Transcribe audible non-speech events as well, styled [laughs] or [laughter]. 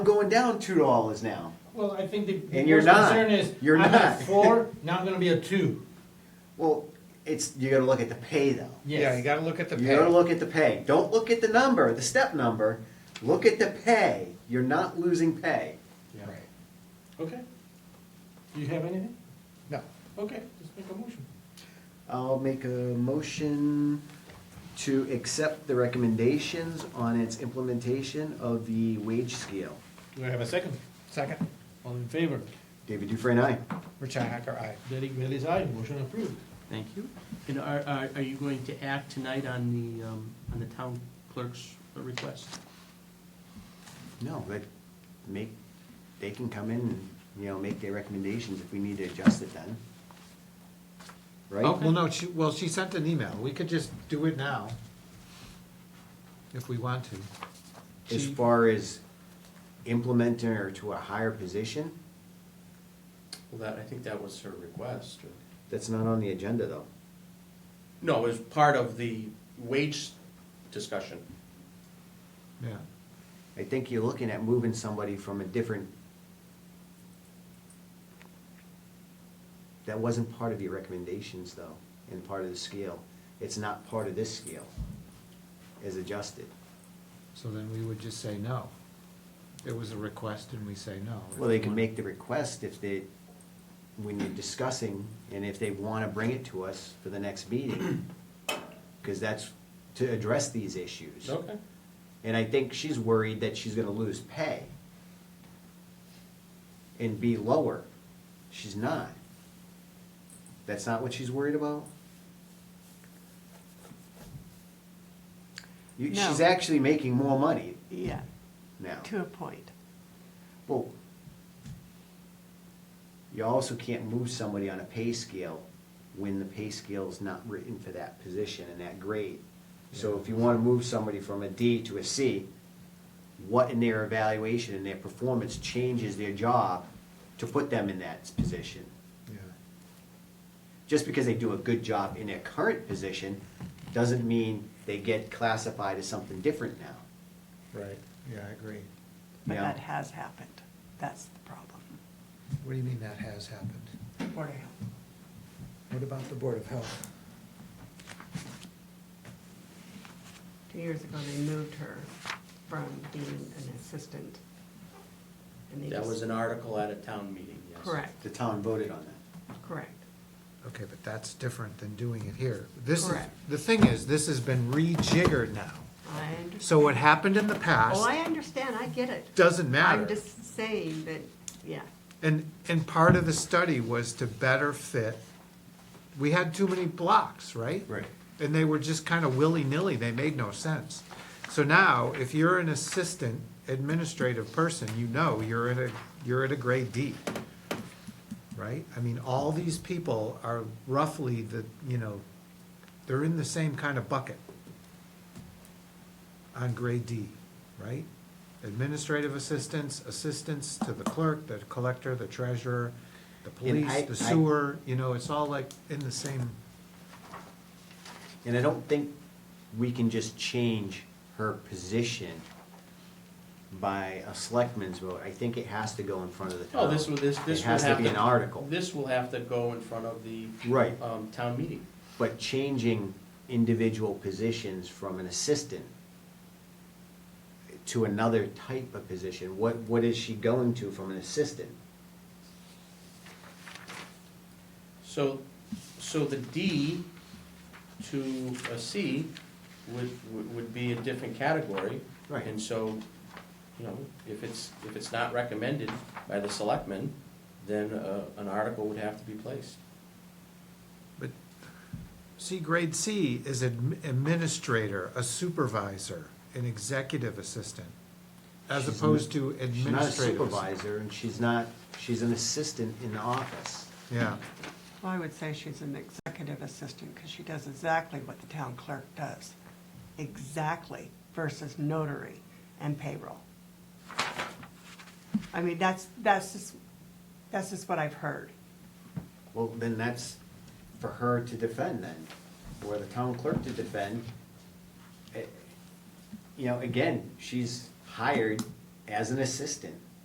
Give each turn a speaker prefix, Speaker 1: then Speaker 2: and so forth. Speaker 1: going down two dollars now.
Speaker 2: Well, I think the the
Speaker 1: And you're
Speaker 2: worst
Speaker 1: not.
Speaker 2: concern is,
Speaker 1: You're
Speaker 2: I'm
Speaker 1: not. [laughs]
Speaker 2: at four, now I'm gonna be a two.
Speaker 1: Well, it's, you gotta look at the pay though.
Speaker 3: Yeah, you
Speaker 2: Yes.
Speaker 3: gotta look at the
Speaker 1: You gotta
Speaker 3: pay.
Speaker 1: look at the pay. Don't look at the number, the step number. Look at the pay. You're not losing pay.
Speaker 2: Yeah.
Speaker 3: Right.
Speaker 2: Okay. Do you have anything?
Speaker 3: No,
Speaker 2: Okay, just make a motion.
Speaker 1: I'll make a motion to accept the recommendations on its implementation of the wage scale.
Speaker 2: Do I have a second?
Speaker 3: second,
Speaker 2: All in favor?
Speaker 1: David Dufresne, aye.
Speaker 3: Richi Hacker, aye.
Speaker 2: Derek Bailey's aye, motion approved.
Speaker 4: Thank you. And are, are, are you going to act tonight on the, um, on the town clerk's request?
Speaker 1: No, but make, they can come in and, you know, make their recommendations if we need to adjust it then.
Speaker 3: Oh,
Speaker 1: Right?
Speaker 3: well, no, she, well, she sent an email, we could just do it now, if we want to.
Speaker 1: As
Speaker 3: She-
Speaker 1: far as implementing her to a higher position,
Speaker 4: Well, that, I think that was her request.
Speaker 1: that's not on the agenda though.
Speaker 4: No, it was part of the wage discussion.
Speaker 3: Yeah,
Speaker 1: I think you're looking at moving somebody from a different. That wasn't part of your recommendations though, and part of the scale. It's not part of this scale as adjusted.
Speaker 3: so then we would just say no. It was a request and we say no.
Speaker 1: Well, they can make the request if they, when you're discussing, and if they wanna bring it to us for the next meeting. Cause that's to address these issues.
Speaker 4: Okay.
Speaker 1: And I think she's worried that she's gonna lose pay. And be lower. She's not. That's not what she's worried about? You,
Speaker 5: No.
Speaker 1: she's actually making more money
Speaker 5: Yeah,
Speaker 1: now.
Speaker 5: to a point.
Speaker 1: Well, you also can't move somebody on a pay scale when the pay scale's not written for that position and that grade. So if you wanna move somebody from a D to a C, what in their evaluation and their performance changes their job to put them in that position?
Speaker 3: Yeah.
Speaker 1: Just because they do a good job in their current position, doesn't mean they get classified as something different now.
Speaker 3: Right, yeah, I agree.
Speaker 5: But
Speaker 1: Yeah.
Speaker 5: that has happened. That's the problem.
Speaker 3: What do you mean that has happened?
Speaker 5: Board of Health.
Speaker 3: What about the Board of Health?
Speaker 6: Two years ago, they moved her from being an assistant. and they
Speaker 4: That
Speaker 6: just-
Speaker 4: was an article at a town meeting, yes.
Speaker 6: Correct,
Speaker 1: The town voted on that.
Speaker 6: correct.
Speaker 3: Okay, but that's different than doing it here. This is,
Speaker 6: Correct.
Speaker 3: the thing is, this has been rejiggered now.
Speaker 6: I understand.
Speaker 3: So what happened in the
Speaker 6: Oh, I
Speaker 3: past
Speaker 6: understand, I get it.
Speaker 3: doesn't matter.
Speaker 6: I'm just saying that, yeah,
Speaker 3: And, and part of the study was to better fit, we had too many blocks, right?
Speaker 1: Right.
Speaker 3: And they were just kind of willy-nilly, they made no sense. So now, if you're an assistant administrative person, you know you're in a, you're at a grade D. Right? I mean, all these people are roughly the, you know, they're in the same kind of bucket on grade D, right? Administrative assistants, assistants to the clerk, the collector, the treasurer, the
Speaker 1: I-
Speaker 3: police, the
Speaker 1: I-
Speaker 3: sewer, you know, it's all like in the same,
Speaker 1: And I don't think we can just change her position by a selectman's vote. I think it has to go in front of the town.
Speaker 4: Oh, this will, this, this
Speaker 1: It
Speaker 4: will
Speaker 1: has
Speaker 4: have to.
Speaker 1: to be an article.
Speaker 4: This will have to go in front of the.
Speaker 1: Right.
Speaker 4: Um, town meeting.
Speaker 1: But changing individual positions from an assistant to another type of position, what, what is she going to from an assistant?
Speaker 4: So, so the D to a C would, would- would be a different category.
Speaker 1: Right.
Speaker 4: And so, you know, if it's, if it's not recommended by the selectmen, then uh, an article would have to be placed.
Speaker 3: but, see, grade C is admi- administrator, a supervisor, an executive assistant, as
Speaker 1: She's
Speaker 3: opposed to
Speaker 1: She's not a
Speaker 3: administrative. assistant.
Speaker 1: supervisor, and she's not, she's an assistant in the office.
Speaker 3: Yeah,
Speaker 5: Well, I would say she's an executive assistant because she does exactly what the town clerk does. Exactly versus notary and payroll. I mean, that's, that's just, that's just what I've heard.
Speaker 1: Well, then that's for her to defend then, or the town clerk to defend. Eh, You know, again, she's hired as an assistant,